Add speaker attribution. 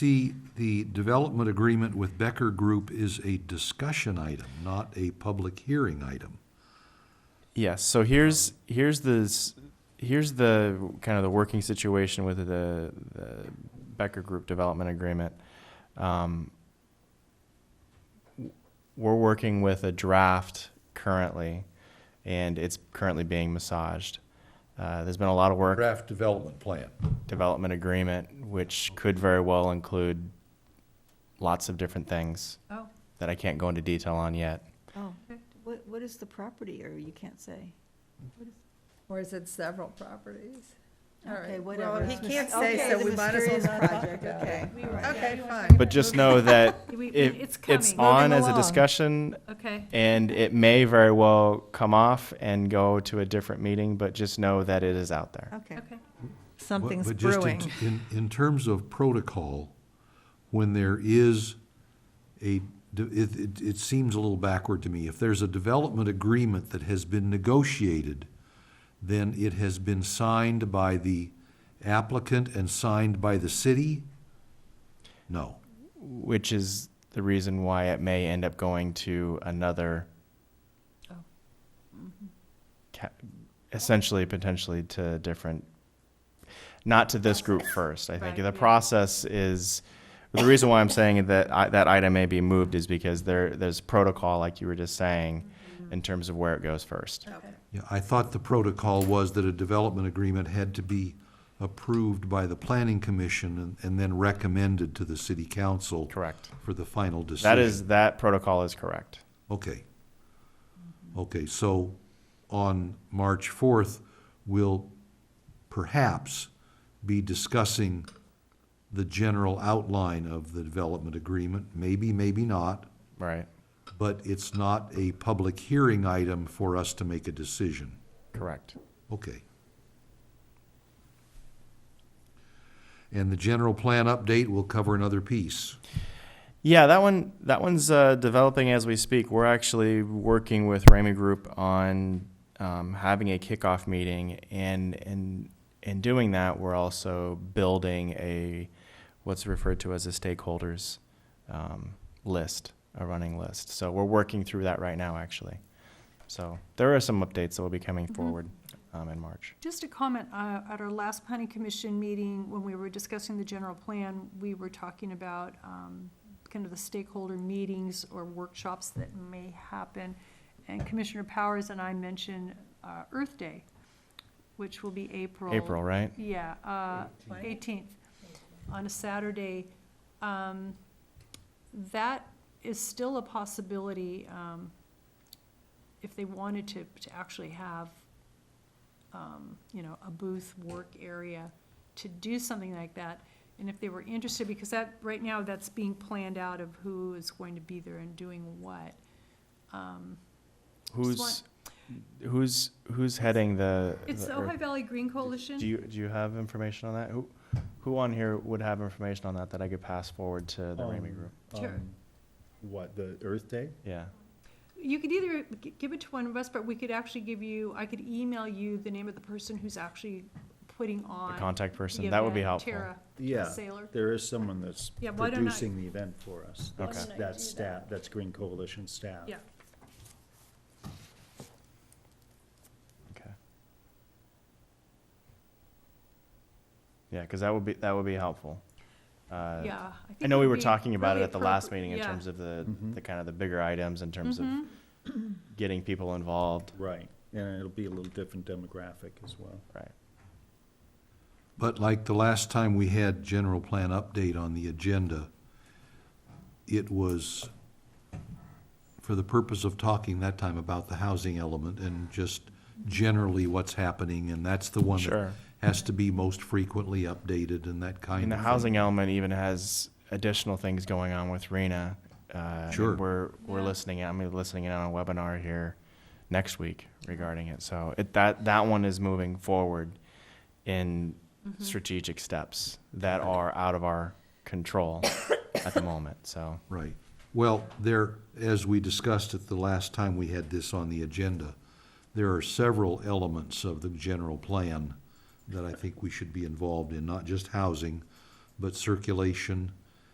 Speaker 1: The, the development agreement with Becker Group is a discussion item, not a public hearing item.
Speaker 2: Yes. So here's here's the s- here's the kind of the working situation with the, the Becker Group Development Agreement. Um, w- we're working with a draft currently, and it's currently being massaged. Uh, there's been a lot of work
Speaker 1: Draft development plan.
Speaker 2: development agreement, which could very well include lots of different things
Speaker 3: Oh,
Speaker 2: that I can't go into detail on yet.
Speaker 3: oh.
Speaker 4: What, what is the property, or you can't say?
Speaker 3: Or is it several properties? All
Speaker 4: Okay,
Speaker 3: right.
Speaker 4: whatever.
Speaker 3: Well, he
Speaker 4: It's
Speaker 3: can't
Speaker 4: mys-
Speaker 3: say,
Speaker 4: okay,
Speaker 3: so
Speaker 4: the
Speaker 3: we might as well
Speaker 4: mysterious
Speaker 3: not talk
Speaker 4: project,
Speaker 3: about
Speaker 4: okay.
Speaker 3: it.
Speaker 4: We were- yeah,
Speaker 3: Okay,
Speaker 4: you wanna
Speaker 3: fine.
Speaker 2: But just know that
Speaker 4: We- we-
Speaker 2: it,
Speaker 4: it's
Speaker 2: it's
Speaker 4: coming.
Speaker 2: on
Speaker 4: Moving
Speaker 2: as a
Speaker 4: along.
Speaker 2: discussion
Speaker 4: Okay.
Speaker 2: And it may very well come off and go to a different meeting, but just know that it is out there.
Speaker 3: Okay.
Speaker 4: Okay.
Speaker 3: Something's
Speaker 1: But- but just in-
Speaker 3: brewing.
Speaker 1: In, in terms of protocol, when there is a, de- it, it, it seems a little backward to me. If there's a development agreement that has been negotiated, then it has been signed by the applicant and signed by the city? No.
Speaker 2: Which is the reason why it may end up going to another.
Speaker 4: Oh. Mm-hmm.
Speaker 2: ca- Essentially, potentially to different, not to this group first. I think
Speaker 4: Right,
Speaker 2: the
Speaker 4: yeah.
Speaker 2: process is, the reason why I'm saying that I, that item may be moved is because there, there's protocol, like you were just saying,
Speaker 4: Mm-hmm.
Speaker 2: in terms of where it goes first.
Speaker 1: Yeah, I thought the protocol was that a development agreement had to be approved by the planning commission and, and then recommended to the city council
Speaker 2: Correct.
Speaker 1: for the final decision.
Speaker 2: That is, that protocol is correct.
Speaker 1: Okay. Okay, so on March fourth, we'll perhaps be discussing the general outline of the development agreement, maybe, maybe not,
Speaker 2: Right.
Speaker 1: but it's not a public hearing item for us to make a decision.
Speaker 2: Correct.
Speaker 1: Okay. And the general plan update will cover another piece.
Speaker 2: Yeah, that one that one's uh, developing as we speak. We're actually working with Ramey Group on um, having a kickoff meeting, and and in doing that, we're also building a what's referred to as a stakeholders um, list, a running list. So we're working through that right now, actually. So there are some updates that will be coming
Speaker 4: Mm-hmm.
Speaker 2: forward um, in March.
Speaker 4: Just a comment, uh, at our last planning commission meeting, when we were discussing the general plan, we were talking about, um, kind of the stakeholder meetings or workshops that may happen. And Commissioner Powers and I mentioned, uh, Earth Day, which will be April.
Speaker 2: April, right?
Speaker 4: Yeah, uh, 18th, on a Saturday. Um, That is still a possibility, um, if they wanted to, to actually have, um, you know, a booth work area, to do something like that. And if they were interested, because that, right now, that's being planned out of who is going to be there and doing what. Um,
Speaker 2: Who's who's who's heading the?
Speaker 4: It's
Speaker 2: the
Speaker 4: the
Speaker 2: Earth-
Speaker 4: Ojai Valley Green Coalition.
Speaker 2: Do you, do you have information on that? Who, who on here would have information on that that I could pass forward to the Ramey
Speaker 5: Um,
Speaker 2: group?
Speaker 4: Sure.
Speaker 5: um, What, the Earth Day?
Speaker 2: Yeah.
Speaker 4: You could either g- give it to one of us, but we could actually give you, I could email you the name of the person who's actually putting
Speaker 2: The
Speaker 4: on.
Speaker 2: contact
Speaker 4: the
Speaker 2: person, that would be
Speaker 4: event,
Speaker 2: helpful.
Speaker 4: Tara, Tara
Speaker 5: Yeah,
Speaker 4: Saylor.
Speaker 5: there is someone that's
Speaker 4: Yeah, why don't I-
Speaker 5: producing the event for us.
Speaker 2: Why
Speaker 5: That's-
Speaker 4: don't I
Speaker 5: That's
Speaker 4: do
Speaker 5: staff, that's Green Coalition staff.
Speaker 4: Yeah,
Speaker 2: Okay. Yeah, because that would be, that would be helpful. Uh,
Speaker 4: yeah.
Speaker 2: I
Speaker 4: think
Speaker 2: know
Speaker 4: it
Speaker 2: we
Speaker 4: would
Speaker 2: were
Speaker 4: be
Speaker 2: talking about it
Speaker 4: really
Speaker 2: at the last
Speaker 4: appropriate.
Speaker 2: meeting in
Speaker 4: Yeah.
Speaker 2: terms of the,
Speaker 5: Mhm.
Speaker 2: the kind of the bigger items in terms of
Speaker 4: Mhm.
Speaker 2: getting people involved,
Speaker 5: Right, and it'll be a little different demographic as well.
Speaker 2: right?
Speaker 1: But like the last time we had general plan update on the agenda, it was for the purpose of talking that time about the housing element and just generally what's happening, and that's the one that
Speaker 2: Sure.
Speaker 1: has to be most frequently updated and that kind of
Speaker 2: And the
Speaker 1: thing.
Speaker 2: housing element even has additional things going on with Rena. Uh, and
Speaker 1: Sure.
Speaker 2: We're, we're
Speaker 4: Yeah.
Speaker 2: listening, I'm gonna be listening in on a webinar here next week regarding it. So it, that, that one is moving forward in strategic steps that are out of our control at the moment, so.
Speaker 1: Right. Well, there, as we discussed it the last time we had this on the agenda, there are several elements of the general plan that I think we should be involved in, not just housing, but circulation,